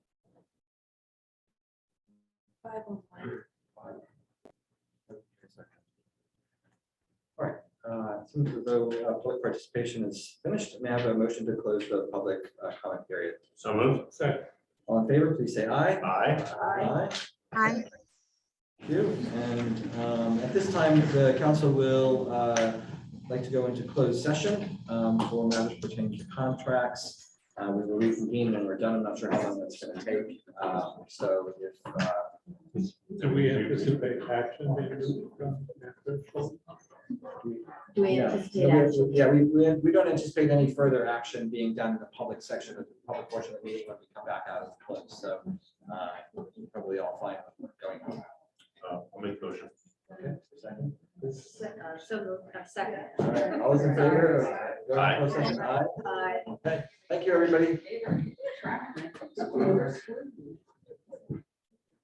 Five oh one. All right, uh, it seems as though uh, public participation is finished. May I have a motion to close the public uh, comment period? So moved. Second. All in favor, please say aye. Aye. Aye. Aye. Thank you. And um, at this time, the council will uh, like to go into closed session um, for matters pertaining to contracts. Uh, We will reconvene when we're done. I'm not sure how long that's going to take. Uh, So if, uh, Do we anticipate action? being taken after? Do we Yeah. anticipate Yeah, we- action? Yeah, we, we, we don't anticipate any further action being done in the public section of the public portion of the meeting when we come back out of the close, so, uh, you're probably all fine with what's going on. Uh, I'll make the motion. Okay, second. Se- uh, So moved, uh, second. All right, all those in favor? of going to closed session? Aye. Aye. Thank you, everybody.